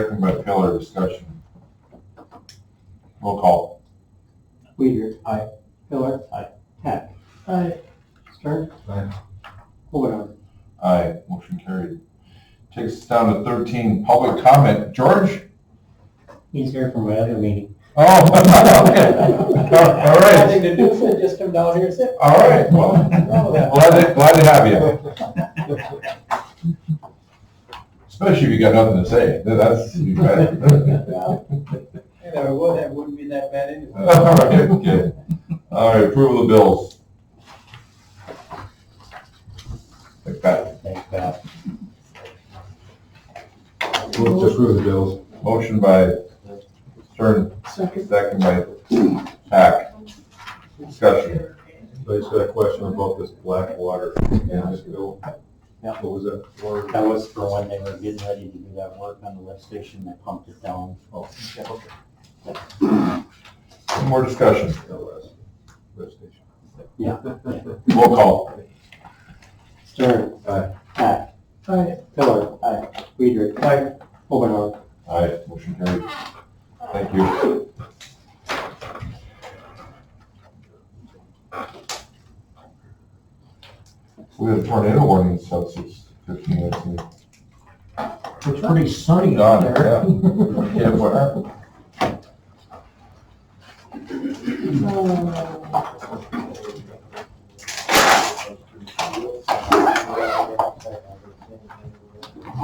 Second by Pillar, discussion. Roll call. Weider. Aye. Pillar. Aye. Heck. Aye. Stern. Aye. Overarm. Aye, motion carried. Takes us down to thirteen, public comment. George? He's here from my other meeting. Oh, okay. All right, Nothing to do, so just come down here and sit. all right, well, glad to, glad to have you. Especially if you got nothing to say, that's, you bet. If I would, that wouldn't be that bad anyway. All right, okay. All right, approval of the bills. Like that. Thanks, Pat. Move to approve the bills. Motion by Stern, Second. second by Hack. Discussion. I just got a question about this black water and this bill. Yeah. What was that for? That was for when they were getting ready to do that work on the lift station, they pumped it down. Oh, okay. Any more discussion? Yeah. Roll call. Stern. Aye. Hack. Aye. Pillar. Aye. Weider. Aye. Overarm. Aye, motion carried. Thank you. We had a tornado warning since it's fifteen minutes. in. It's pretty sunny Done, yeah. Yeah, what happened? Uh,